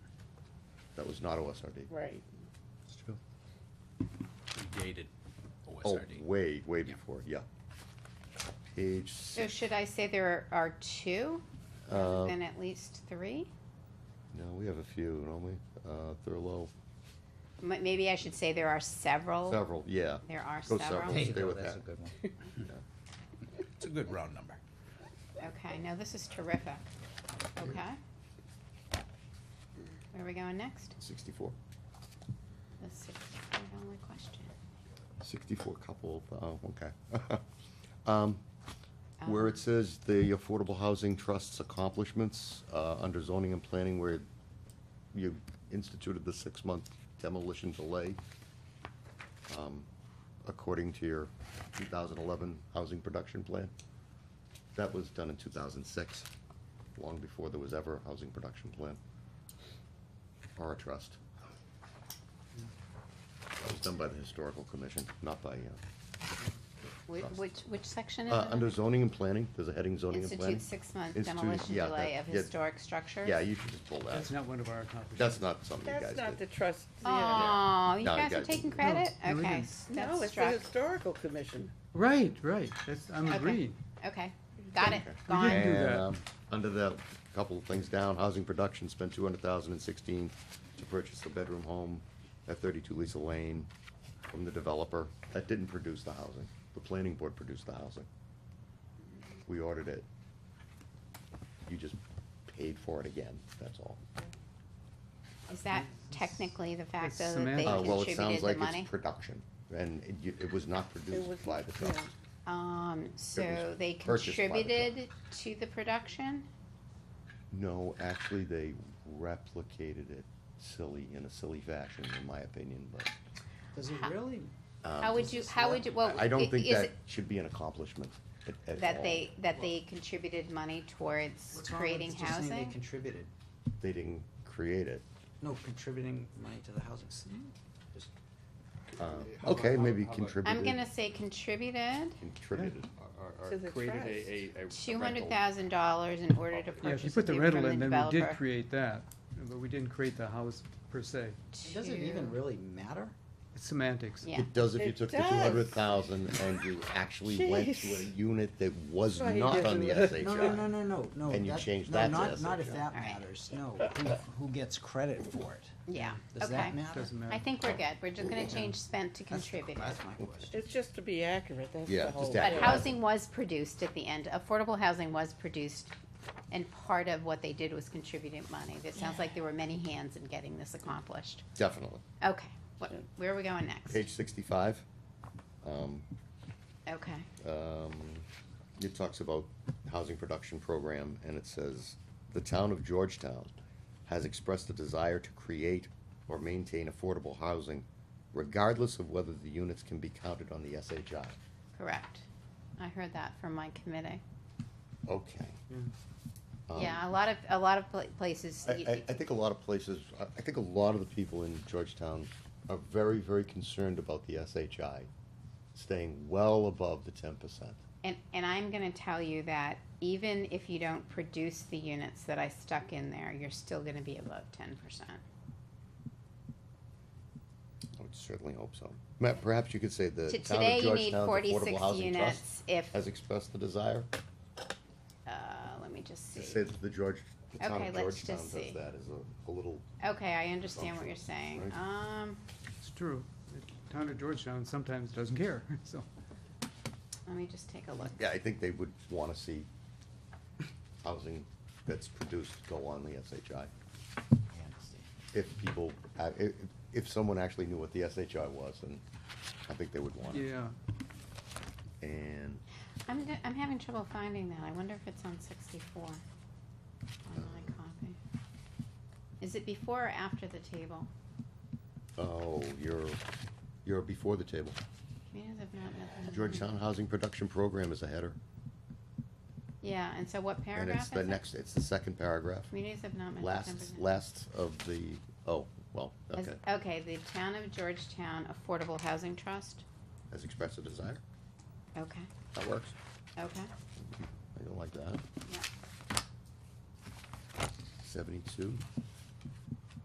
that was not OSRD. Right. It's true. predated Oh, OSRD. way, way Yeah. before, yeah. Page So six, should I say there are two, uh, and at least three? no, we have a few, don't we? Uh, Thurlow, M- Maybe I should say there are several? several, yeah. Oh. There are Go several? several. There you stay go, with that's a that. good one. It's a good round number. Okay, no, this is terrific. Okay. Where are we going next? Sixty-four? The sixty-four only question. Sixty-four couple, oh, okay. Um, Where Um, it says the Affordable Housing Trust's accomplishments, uh, under zoning and planning where you instituted the six-month demolition delay, um, according to your two thousand eleven housing production plan. That was done in two thousand six, long before there was ever a housing production plan or a trust. That was done by the Historical Commission, not by, uh, Whi- trust. Which, which section is uh, it? under zoning and planning, there's a heading zoning and planning. Institute six-month Institute- demolition yeah, delay that- of yeah. historic structures? Yeah, you should just pull that. That's not one of our accomplishments. That's not something you That's guys not the did. trust, yeah. Oh, you No, you guys are got it. taking No, credit? no, we Okay, didn't. s- No, that's it's the struck. historical commission. Right, right, that's, I'm Okay. agreed. Okay, got it, Okay. We gone. didn't do And, that. um, Under the, couple of things down, housing production spent two hundred thousand and sixteen to purchase a bedroom home at thirty-two Lisa Lane from the developer. That didn't produce the housing. The planning board produced the housing. We ordered it. You just paid for it again, that's all. Is that technically the fact It's though that they semantics. Uh, well, it sounds contributed the like money? it's production, and it, you- it was not produced was- by the trust. yeah. Um, so they purchased by the company. contributed to the production? No, actually, they replicated it silly, in a silly fashion, in my opinion, but. Does it really? How would you, how would you, well, Um, I i- don't think is that it should be an accomplishment at, at all. that they, that they contributed money towards creating They housing? contributed, They didn't create it. no, contributing money to the housing. s- Mm. Just Uh, How about- Okay, how- maybe how about- I'm contributed, gonna say contributed contributed. or- or- To or the created trust. a- a, a. two rental. hundred thousand dollars in order Yeah, to if Yeah, if you purchase a put the unit from rental the in, then we did developer. create that, but we didn't create the house per se. It doesn't even to- really matter. It's semantics. Yeah. It does if you It took the two does. hundred thousand and you actually went to a Jeez. unit that was That's why he not on doesn't the let- SHI. No, no, no, no, no, no. And you that- change no, that to Not, not if SHI. that All right. matters, no. Who, who gets credit for it? Yeah, Does okay. that matter? Doesn't matter. I think we're good. We're just gonna change spent to That's the- contributed. That's my question. It's just to be accurate, that's Yeah, the just whole. But accurate. Yeah. housing was produced at the end, affordable housing was produced, and part of what they did was contributing money. It sounds like there were many hands in getting this accomplished. Definitely. Okay, what, where are we going next? Page sixty-five, um, Okay, um, it talks about housing production program, and it says, "The town of Georgetown has expressed a desire to create or maintain affordable housing, regardless of whether the units can be counted on the SHI." correct. I heard that from my committee. Okay. Yeah. Um, Yeah, a lot of, a lot of pla- places, I, you- I, I think a lot of places, I, I think a lot of the people in Georgetown are very, very concerned about the SHI staying well above the ten percent. and, and I'm gonna tell you that even if you don't produce the units that I stuck in there, you're still gonna be above ten percent. I would certainly hope so. Matt, perhaps you could say the town To of today, you need Georgetown's forty-six Affordable Housing Trust units if, has expressed the desire. uh, let me just see. To say that the George, the town Okay, of let's Georgetown just does see. that is a, a little, Okay, I understand what you're saying. Right. Um, It's true. The town of Georgetown sometimes doesn't care, so. let me just take a look. yeah, I think they would wanna see housing that's produced go on the SHI. I understand. If people, uh, if, if someone actually knew what the SHI was, then I think they would want it. Yeah, And I'm, d- I'm having trouble finding that. I wonder if it's on sixty-four. On Uh, my copy. Is it before or after the table? Oh, you're, you're before the table. Communities have not met the minimum- Georgetown Housing Production Program is a header. Yeah, and so what And paragraph it's is the it? next, it's the second paragraph. Communities have not met the Last, ten percent. last of the, oh, well, Has- okay. Okay, the town of Georgetown Affordable Housing Trust. Has expressed a desire. Okay, That works. okay, I don't like that. yeah. Seventy-two.